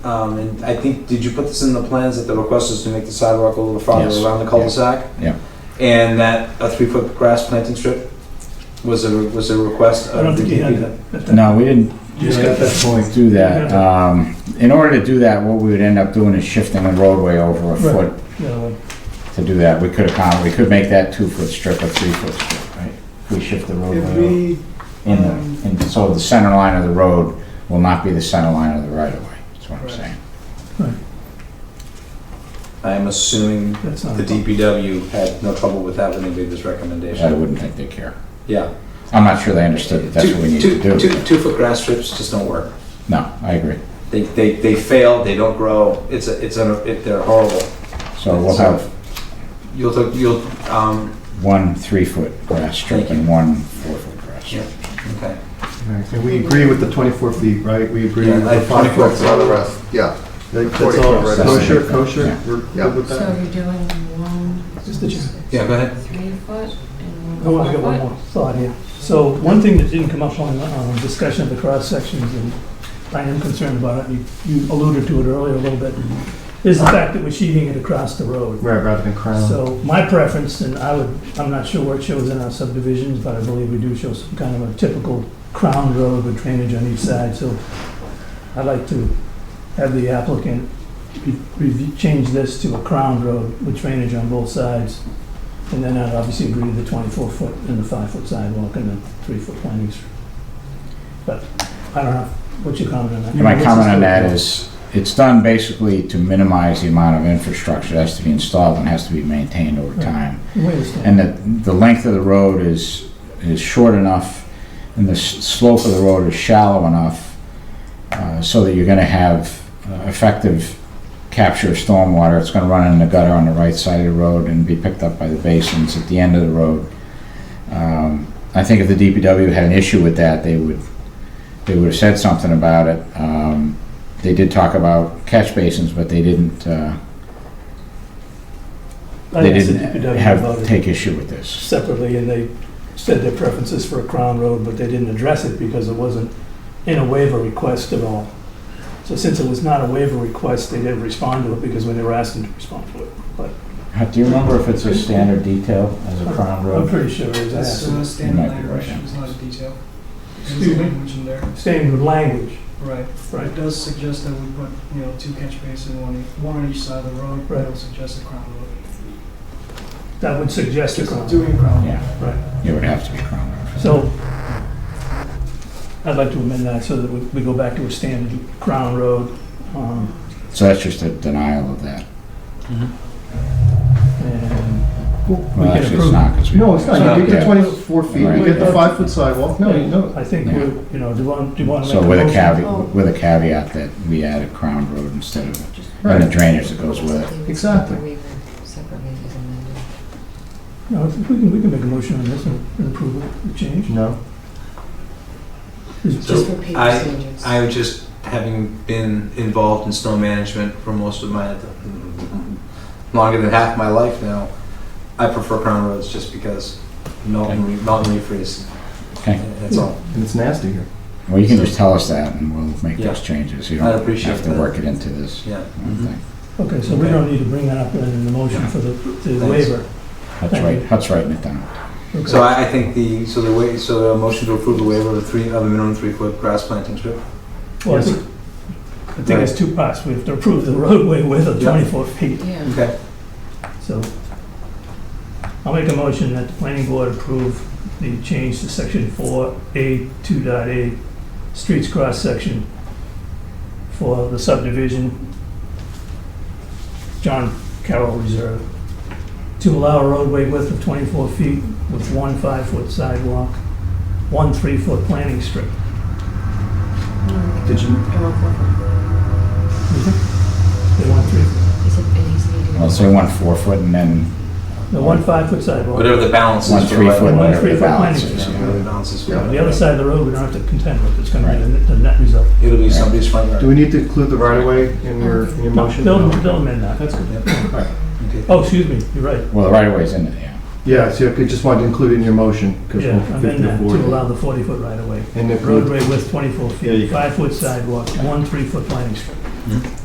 Um, and I think, did you put this in the plans that the request is to make the sidewalk a little farther Yes. around the cul-de-sac? Yeah. And that a three-foot grass planting strip was a, was a request of. I don't think the you had DPW? that. at that- No, we didn't You just got that point. do that. Um, in order to do that, what we would end up doing is shifting the roadway over a Right. foot No, to do that. We could accom, we could make that two-foot strip a three-foot strip, right? We shift the Oh, roadway If over we, in um, the, and so the center line of the road will not be the center line of the right-of-way, that's what I'm Right. saying. I'm assuming That's not. the DPW had no trouble with that when they made this I recommendation. wouldn't think they care. Yeah. I'm not sure they understood that that's what we need Two- to two- do. two- two-foot grass strips just don't work. No, I agree. They, they, they fail, they don't grow, it's a, it's a, it- they're horrible. So Oh, we'll have You'll, take- you'll, um, one three-foot grass strip and one four-foot grass strip. okay. And we agree with the 24 feet, right? We agree Yeah, with I- the 5 24 foot. that's all the rest, yeah. That's 24 all, right. kosher, kosher, Yeah. we're Yeah. good with So that? you're doing one. Just the chair. Yeah, go ahead. Three foot and Oh, one I got one four foot? more thought here. So one thing that didn't come up on, um, discussion of the cross sections, and I am concerned about it, you- you alluded to it earlier a little bit, is the fact that we're sheathing it across the road. Right, rather than crown. Um, So my preference, and I would, I'm not sure where it shows in our subdivisions, but I believe we do show some kind of a typical crown road with drainage on each side, so I'd like to have the applicant re- review- change this to a crown road with drainage on both sides. And then I'd obviously agree to the 24-foot and the 5-foot sidewalk and the 3-foot planting strip. But I don't know, what's your comment on that? And my comment on that is, it's done basically to minimize the amount of infrastructure that has to be installed and has to be maintained over Right. time. Wait a second. And that the length of the road is, is short enough and the s- slope of the road is shallow enough uh, so that you're gonna have uh, effective capture of stormwater. It's gonna run in the gutter on the right side of the road and be picked up by the basins at the end of the road. Um, I think if the DPW had an issue with that, they would, they would have said something about it. Um, They did talk about catch basins, but they didn't, uh, I they asked Oh, the didn't DPW about have, it. take issue with this. separately, and they said their preferences for a Crown Road, but they didn't address it because it wasn't in a waiver request at all. So since it was not a waiver request, they didn't respond to it because we never asked them to respond to it. Uh, Do you remember if it's a standard detail as a crown I'm road? pretty sure it was That's asked. uh, standard might be language, right. it's not a detail. It's Excuse me? language in there, Staying with language, right. right? It does suggest that we put, you know, two catch basins, one, one on each side of the road. Right. It'll suggest a crown road. That would suggest a Crown. Road. Doing a crown road. Yeah. It would have to be crown road. So I'd like to amend that so that we- we go back to a standard Crown Road. um, So that's just a denial of that. And we Well, can actually, it's approve not, because we. No, it's not, you get the Yeah. 24 feet, you get the 5 foot sidewalk, no, you know. I think, we're you know, do you want, do you want to make So a with a motion? Oh. caveat, with a caveat that we add a crown road instead of, and the drainage that goes with it. Exactly. Separately as amended. No, if we can, we can make a motion on this and and approve it, the change. No, Is- Just repeat I- procedures. I was just, having been involved in snow management for most of my, longer than half my life now, I prefer crown roads just because melt and, re- melt and refreeze. Okay. That's all. and it's nasty here. Well, you can just tell us that and we'll make those changes. You I'd don't appreciate have to that. Mm-hmm. work Mm-hmm. it into this Yeah. thing. Okay, so we don't need to bring that up in the motion for the, the waiver. Hut's right, Hut's writing it down. Okay. So I, I think the, so the way, so the motion to approve the waiver of the three, of a minimum three-foot grass planting strip? Well, I think- I think it's two parts. We have to approve the roadway width of Yeah. 24 feet, Yeah. Okay. so. I'll make a motion that the planning board approve the change to section 4A 2.8, streets cross-section for the subdivision John Carroll Reserve, to allow a roadway width of 24 feet with one five-foot sidewalk, one three-foot planting strip. Mm. Did you- I want four foot. They want three, Is it, it needs to be. Well, so we want four foot and then the one five-foot sidewalk. Whatever the balance is. one for three foot, right- One whatever three the foot balance planting is. Yeah, yeah. whatever the balance is. for On right- the other side of the road, we don't have to contend with, it's gonna be the the net result. It'll be somebody's front yard. Do we need to include the right of way in your, in your No, motion? They'll, they'll amend that. That's good. Okay. Oh, excuse me, you're right. Well, the right of way's in it, yeah. Yeah, so I could- just wanted to include it in your motion, because Yeah, we'll fit amend the that to board. allow the forty-foot right-of-way. And if we- Roadway width twenty-four There you feet, go. five-foot sidewalk, one three-foot planting strip.